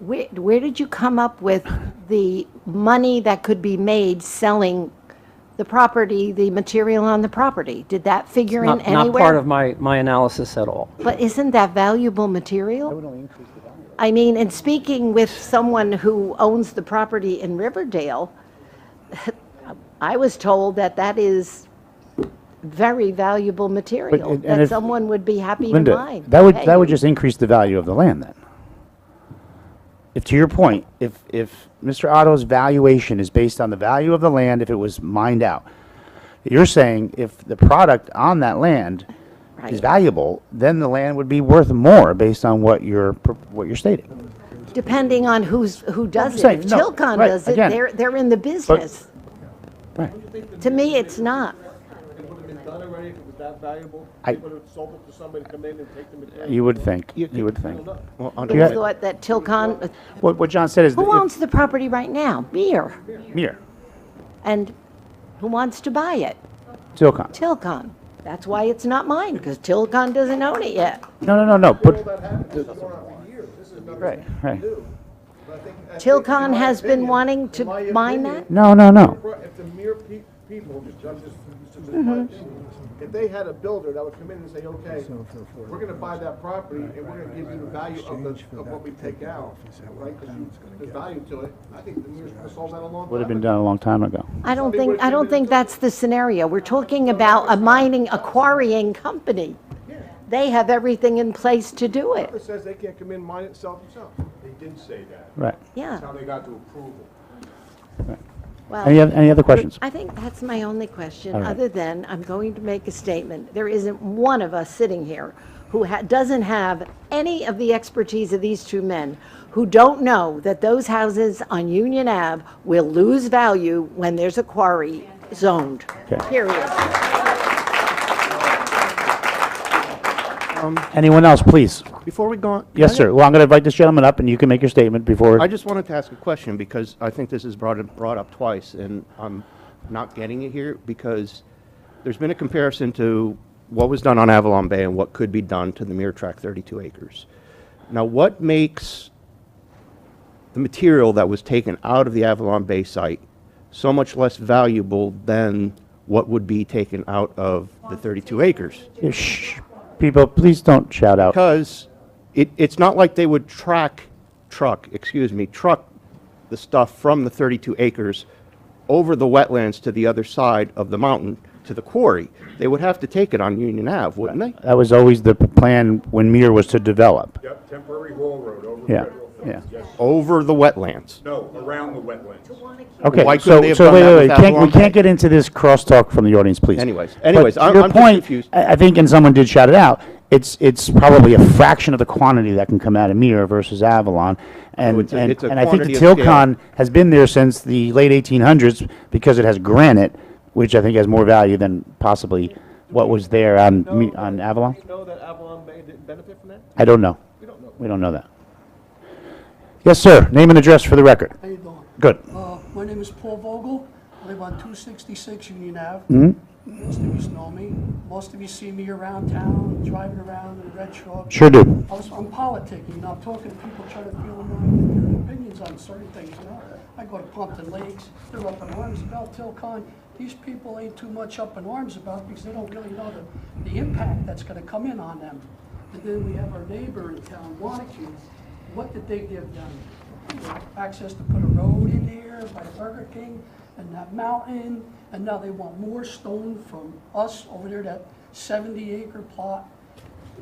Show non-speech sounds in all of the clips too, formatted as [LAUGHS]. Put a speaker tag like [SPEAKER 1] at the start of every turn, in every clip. [SPEAKER 1] where, where did you come up with the money that could be made selling the property, the material on the property? Did that figure in
[SPEAKER 2] Not,
[SPEAKER 1] anywhere?
[SPEAKER 2] not part of my, my analysis at all.
[SPEAKER 1] But isn't that valuable material? I mean, and speaking with someone who owns the property in Riverdale, [LAUGHS] I was told that that is very valuable material,
[SPEAKER 3] and
[SPEAKER 1] that
[SPEAKER 3] if-
[SPEAKER 1] someone would be happy to
[SPEAKER 3] Linda,
[SPEAKER 1] mine.
[SPEAKER 3] that would,
[SPEAKER 1] Hey,
[SPEAKER 3] that would just increase the value of the land then. If, to your point, if, if Mr. Otto's valuation is based on the value of the land, if it was mined out, you're saying if the product on that land
[SPEAKER 1] Right.
[SPEAKER 3] is valuable, then the land would be worth more based on what you're, pro- what you're stating.
[SPEAKER 1] Depending on who's, who does it.
[SPEAKER 3] saying,
[SPEAKER 1] If
[SPEAKER 3] no,
[SPEAKER 1] Tilcon
[SPEAKER 3] right,
[SPEAKER 1] does it,
[SPEAKER 3] again.
[SPEAKER 1] they're, they're in the business.
[SPEAKER 3] Right.
[SPEAKER 1] To me, it's not.
[SPEAKER 4] It would have been done already if it was that valuable.
[SPEAKER 3] I-
[SPEAKER 4] They would have sold it to somebody to come in and take the material.
[SPEAKER 3] You would think, you
[SPEAKER 4] I
[SPEAKER 3] would
[SPEAKER 4] don't
[SPEAKER 3] think.
[SPEAKER 4] know.
[SPEAKER 5] Well,
[SPEAKER 3] You
[SPEAKER 1] I
[SPEAKER 3] got-
[SPEAKER 5] under,
[SPEAKER 1] thought that Tilcon,
[SPEAKER 3] What, what John said is.
[SPEAKER 1] who
[SPEAKER 3] that if-
[SPEAKER 1] owns the property right now? Mir.
[SPEAKER 3] Here,
[SPEAKER 1] And who wants to buy it?
[SPEAKER 3] Tilcon.
[SPEAKER 1] Tilcon. That's why it's not mine, because Tilcon doesn't own it yet.
[SPEAKER 3] No, no, no, no,
[SPEAKER 4] All
[SPEAKER 3] but,
[SPEAKER 4] that happened, this has gone on for years. This is nothing
[SPEAKER 3] right, right.
[SPEAKER 4] new. But I think- I think in
[SPEAKER 1] Tilcon
[SPEAKER 4] my
[SPEAKER 1] has been
[SPEAKER 4] opinion-
[SPEAKER 1] wanting
[SPEAKER 4] in
[SPEAKER 1] to
[SPEAKER 4] my
[SPEAKER 1] mine that?
[SPEAKER 4] opinion,
[SPEAKER 3] No, no, no.
[SPEAKER 4] If the mere pe- people, I'm just- this is my
[SPEAKER 3] Mm-hmm.
[SPEAKER 4] opinion. if they had a builder that would come in and say, okay, we're gonna buy that property and we're gonna give you the value of the, of what we take out, right? 'Cause you- There's value to it. I think the mere, I sold that a long time.
[SPEAKER 3] Would have been
[SPEAKER 4] ago.
[SPEAKER 3] done a long time ago.
[SPEAKER 1] I don't
[SPEAKER 4] Somebody
[SPEAKER 1] think,
[SPEAKER 4] would've
[SPEAKER 1] I
[SPEAKER 4] came
[SPEAKER 1] don't
[SPEAKER 4] in
[SPEAKER 1] think
[SPEAKER 4] and took
[SPEAKER 1] that's the scenario. We're talking about a mining, a quarrying company. They have everything in place to do
[SPEAKER 4] It
[SPEAKER 1] it.
[SPEAKER 4] says they can't come in, and mine it, sell it themselves.
[SPEAKER 6] They did say that.
[SPEAKER 3] Right.
[SPEAKER 1] Yeah,
[SPEAKER 6] That's how they got to approval.
[SPEAKER 3] Any,
[SPEAKER 1] well,
[SPEAKER 3] oth- any other questions?
[SPEAKER 1] I think that's my only question,
[SPEAKER 3] All right.
[SPEAKER 1] other than I'm going to make a statement. There isn't one of us sitting here who ha- doesn't have any of the expertise of these two men, who don't know that those houses on Union Ave will lose value when there's a quarry zoned,
[SPEAKER 3] Okay.
[SPEAKER 1] period.
[SPEAKER 3] Anyone else, please?
[SPEAKER 5] before we go on. can
[SPEAKER 3] Yes,
[SPEAKER 5] I-
[SPEAKER 3] sir. Well, I'm going to invite this gentleman up, and you can make your statement before.
[SPEAKER 5] I just wanted to ask a question because I think this is brought, up- brought up twice and I'm not getting it here because there's been a comparison to what was done on Avalon Bay and what could be done to the mere tract 32 acres. Now, what makes the material that was taken out of the Avalon Bay site so much less valuable than what would be taken out of the 32 acres?
[SPEAKER 3] Yeah, Shh, people, please don't shout out.
[SPEAKER 5] because it, it's not like they would track, truck, excuse me, truck the stuff from the 32 acres over the wetlands to the other side of the mountain to the quarry. They would have to take it on Union Ave, wouldn't they?
[SPEAKER 3] That was always the p- plan when Mir was to develop.
[SPEAKER 6] Yep, temporary haul road over
[SPEAKER 3] Yeah,
[SPEAKER 6] federal
[SPEAKER 3] yeah.
[SPEAKER 6] funds. Yes.
[SPEAKER 5] Over the wetlands.
[SPEAKER 6] No, around the wetlands.
[SPEAKER 3] Okay,
[SPEAKER 5] Why couldn't
[SPEAKER 3] so,
[SPEAKER 5] they have
[SPEAKER 3] so
[SPEAKER 5] done
[SPEAKER 3] wait,
[SPEAKER 5] that
[SPEAKER 3] wait,
[SPEAKER 5] with
[SPEAKER 3] wait, can't, we
[SPEAKER 5] Avalon
[SPEAKER 3] can't
[SPEAKER 5] Bay?
[SPEAKER 3] get into this crosstalk from the audience, please.
[SPEAKER 5] Anyways,
[SPEAKER 3] But
[SPEAKER 5] anyways,
[SPEAKER 3] to
[SPEAKER 5] I'm-
[SPEAKER 3] your
[SPEAKER 5] I'm just
[SPEAKER 3] point,
[SPEAKER 5] confused.
[SPEAKER 3] I, I think, and someone did shout it out, it's, it's probably a fraction of the quantity that can come out of Mir versus Avalon. And,
[SPEAKER 5] it's a-
[SPEAKER 3] and,
[SPEAKER 5] it's a
[SPEAKER 3] and I think the
[SPEAKER 5] quantity of scale.
[SPEAKER 3] Tilcon has been there since the late 1800s because it has granite, which I think has more value than possibly what was there on, Mi-
[SPEAKER 4] No,
[SPEAKER 3] on
[SPEAKER 4] but
[SPEAKER 3] Avalon.
[SPEAKER 4] Do you know that Avalon Bay didn't benefit from that?
[SPEAKER 3] I don't know.
[SPEAKER 4] We don't know.
[SPEAKER 3] We don't know that. Yes, sir. Name and address for the record.
[SPEAKER 7] How you doing?
[SPEAKER 3] Good.
[SPEAKER 7] Uh, my name is Paul Vogel. I live on two sixty-six Union Ave. Most of you know me. Most of you see me around town, driving around in a red truck.
[SPEAKER 3] Sure do.
[SPEAKER 7] I was, I'm politicking, you know, I'm talking to people, trying to feel my, their opinions on certain things, you know? I go to Plumpton Lakes, they're up in arms about Tilcon. These people ain't too much up in arms about because they don't really know the, the impact that's gonna come in on them. And then we have our neighbor in town, Wanacue. What did they give them? Access to put a road in there by Burger King and that mountain, and now they want more stone from us over there, that seventy acre plot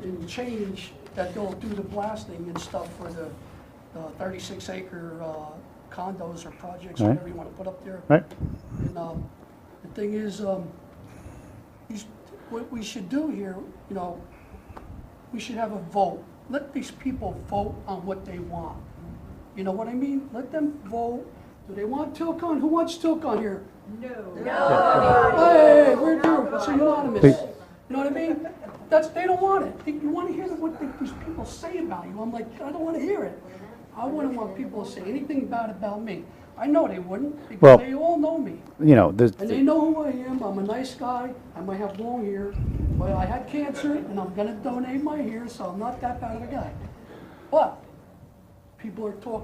[SPEAKER 7] and change that they'll do the blasting and stuff for the the 36 acre uh, condos or projects,
[SPEAKER 3] Right.
[SPEAKER 7] whatever you want to put up there.
[SPEAKER 3] Right?
[SPEAKER 7] And um, the thing is, um, you s- what we should do here, you know, we should have a vote. Let these people vote on what they want. You know what I mean? Let them vote. Do they want Tilcon? Who wants Tilcon here? No. Hey, we're doing, it's unanimous.
[SPEAKER 3] Please.
[SPEAKER 7] You know what I mean? That's, they don't want it. They- You want to hear what the- these people say about you. I'm like, I don't want to hear it. I wouldn't want people to say anything bad about me. I know they wouldn't,
[SPEAKER 3] Well-
[SPEAKER 7] because they all know me.
[SPEAKER 3] You know, there's,
[SPEAKER 7] And they know who I am, I'm a nice guy, I might have long hair, but I had cancer and I'm gonna donate my hair, so I'm not that bad of a guy. But, people are talking